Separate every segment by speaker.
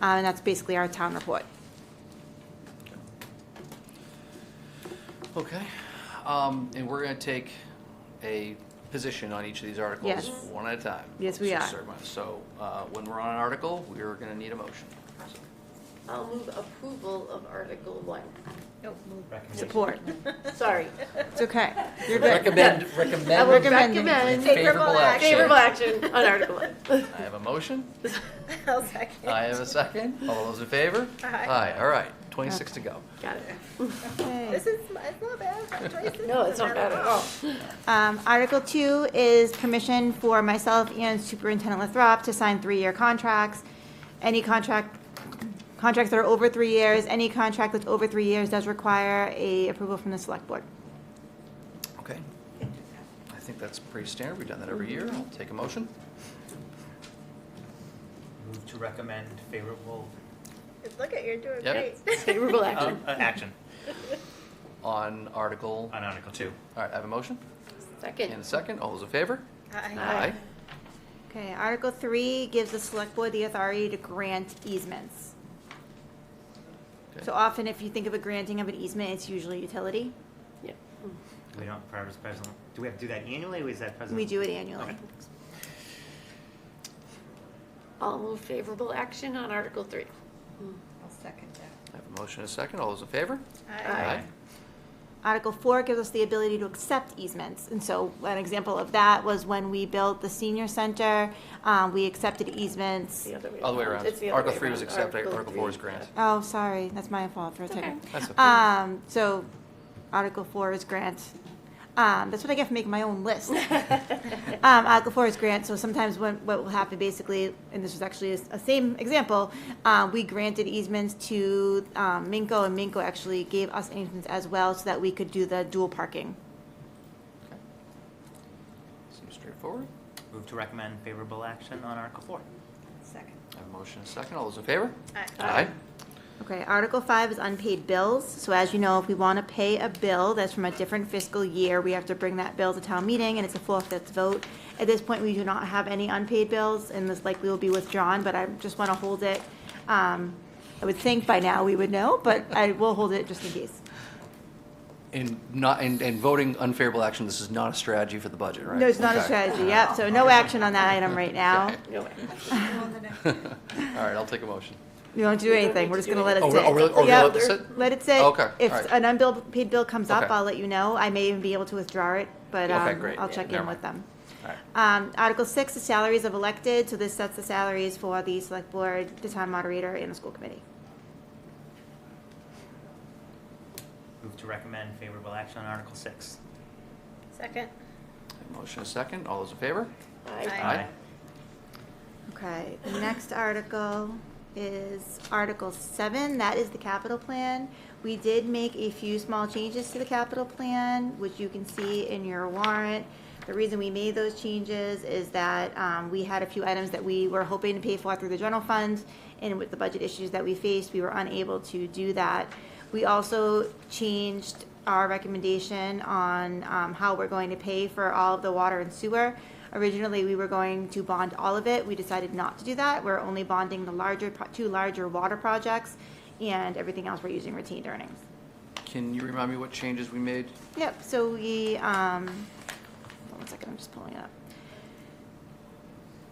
Speaker 1: Uh, And that's basically our town report.
Speaker 2: Okay, um, and we're gonna take a position on each of these articles,
Speaker 1: Yes.
Speaker 2: one at a time.
Speaker 1: Yes, we
Speaker 2: So,
Speaker 1: are.
Speaker 2: sir, So, uh, when we're on an article, we're gonna need a motion.
Speaker 3: I'll move approval of Article One.
Speaker 1: Support.
Speaker 3: Sorry.
Speaker 1: It's okay. You're good.
Speaker 2: Recommend,
Speaker 3: I will
Speaker 2: recommend,
Speaker 1: Recommend-
Speaker 3: recommend
Speaker 2: Favorable action.
Speaker 3: favorable action on Article One.
Speaker 2: I have a motion,
Speaker 4: I'll second.
Speaker 2: I have a second, all those in favor?
Speaker 4: Aye.
Speaker 2: Aye, all right, twenty-six to go.
Speaker 3: Got it.
Speaker 1: Okay.
Speaker 4: This is, it's not bad. Joyce, this
Speaker 3: No,
Speaker 4: isn't
Speaker 3: it's not bad at all.
Speaker 1: Um, Article two is permission for myself and Superintendent Lathrop to sign three-year contracts. Any contract, contracts that are over three years, any contract that's over three years does require a approval from the select board.
Speaker 2: Okay, I think that's pretty standard, we've done that every year, I'll take a motion.
Speaker 5: Move to recommend favorable
Speaker 4: Look at, you're doing great.
Speaker 2: Yep.
Speaker 3: Favorable
Speaker 5: uh,
Speaker 3: action.
Speaker 5: uh, action
Speaker 2: On article, all
Speaker 5: on Article Two.
Speaker 2: right, I have a motion, and a
Speaker 3: Second.
Speaker 2: second, all those in favor?
Speaker 4: Aye.
Speaker 3: Aye.
Speaker 1: Okay, Article three gives the select board the authority to grant easements.
Speaker 2: Okay.
Speaker 1: So often, if you think of a granting of an easement, it's usually utility.
Speaker 3: Yeah.
Speaker 5: We don't, pres- present, do we have to do that annually, or is that present?
Speaker 1: We do it annually.
Speaker 5: Okay.
Speaker 3: I'll move favorable action on Article Three.
Speaker 4: I'll second that.
Speaker 2: I have a motion, and a second, all those in favor?
Speaker 3: Aye.
Speaker 1: Uh, Article four gives us the ability to accept easements, and so an example of that was when we built the senior center, um, we accepted easements.
Speaker 3: It's
Speaker 2: All the way around.
Speaker 3: It's the other
Speaker 2: Article
Speaker 3: way
Speaker 2: three was
Speaker 3: around.
Speaker 2: accepted, Article four
Speaker 3: three,
Speaker 2: is granted.
Speaker 3: yeah.
Speaker 1: Oh, sorry, that's my fault for a second.
Speaker 3: okay.
Speaker 2: That's okay.
Speaker 1: Um, so, Article four is grant. Um, that's what I get for making my own list. Um, Article four is grant, so sometimes when, what will happen basically, and this is actually a, s- a same example, uh, we granted easements to, um, Minko, and Minko actually gave us easements as well, so that we could do the dual parking.
Speaker 2: Okay. Seems straightforward.
Speaker 5: Move to recommend favorable action on Article Four.
Speaker 4: Second.
Speaker 2: I have a motion and a second. All those in favor?
Speaker 4: Aye.
Speaker 1: Okay, Article five is unpaid bills. So as you know, if we want to pay a bill that's from a different fiscal year, we have to bring that bill to town meeting, and it's a four-fifths vote. At this point, we do not have any unpaid bills, and this likely will be withdrawn, but I just want to hold it. Um, I would think by now we would know, but I will hold it just in case.
Speaker 2: And not, and, and voting unfavorable action, this is not a strategy for the budget, right?
Speaker 1: No, it's not a
Speaker 2: Okay.
Speaker 1: strategy, yep, so no action on that item right now.
Speaker 2: Okay.
Speaker 3: No way.
Speaker 2: All right, I'll take a motion.
Speaker 1: We won't do anything, we're just going to let it
Speaker 2: Oh,
Speaker 1: sit.
Speaker 2: re- oh, really? Oh, we
Speaker 1: Yep.
Speaker 2: let this sit?
Speaker 1: Let it sit.
Speaker 2: Okay,
Speaker 1: If
Speaker 2: all right.
Speaker 1: an unbilled paid bill comes up,
Speaker 2: Okay.
Speaker 1: I'll let you know. I may even be able to withdraw it, but
Speaker 2: Okay,
Speaker 1: um,
Speaker 2: great.
Speaker 1: I'll check
Speaker 2: Never
Speaker 1: in with
Speaker 2: mind.
Speaker 1: them.
Speaker 2: All right.
Speaker 1: Um, Article six, the salaries of elected, so this sets the salaries for the select board, the town moderator, and the school committee.
Speaker 5: Move to recommend favorable action on Article Six.
Speaker 4: Second.
Speaker 2: I have a Motion and a second. All those in favor?
Speaker 4: Aye.
Speaker 3: Aye.
Speaker 1: Okay, the next article is Article seven, that is the capital plan. We did make a few small changes to the capital plan, which you can see in your warrant. The reason we made those changes is that, um, we had a few items that we were hoping to pay for through the general fund, and with the budget issues that we faced, we were unable to do that. We also changed our recommendation on um, how we're going to pay for all of the water and sewer. Originally, we were going to bond all of it. We decided not to do that. We're only bonding the larger, pro- two larger water projects, and everything else we're using retained earnings.
Speaker 2: Can you remind me what changes we made?
Speaker 1: Yep, so we, um, hold on one second, I'm just pulling it up.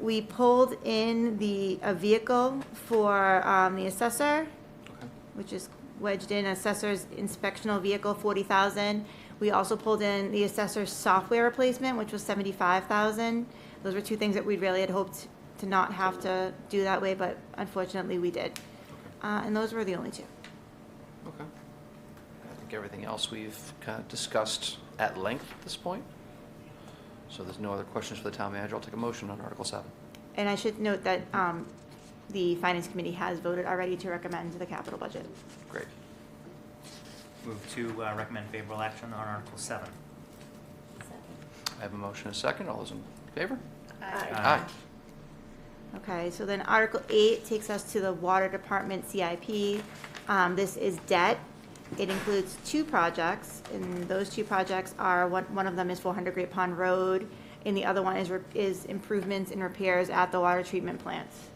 Speaker 1: We pulled in the, a vehicle for um, the assessor,
Speaker 2: Okay.
Speaker 1: which is wedged in assessor's inspectional vehicle, forty thousand. We also pulled in the assessor's software replacement, which was seventy-five thousand. Those were two things that we really had hoped to not have to do that way, but unfortunately, we did. Uh, and those were the only two.
Speaker 2: Okay. I think everything else we've kind of discussed at length at this point. So there's no other questions for the town manager. I'll take a motion on Article seven.
Speaker 1: And I should note that, um, the finance committee has voted already to recommend the capital budget.
Speaker 2: Great.
Speaker 5: Move to uh, recommend favorable action on Article Seven.
Speaker 2: I have a motion and a second. All those in favor?
Speaker 3: Aye.
Speaker 2: Aye.
Speaker 1: Okay, so then Article eight takes us to the Water Department CIP. Um, this is debt. It includes two projects, and those two projects are, one, one of them is four hundred Great Pond Road, and the other one is, re- is improvements and repairs at the water treatment plants.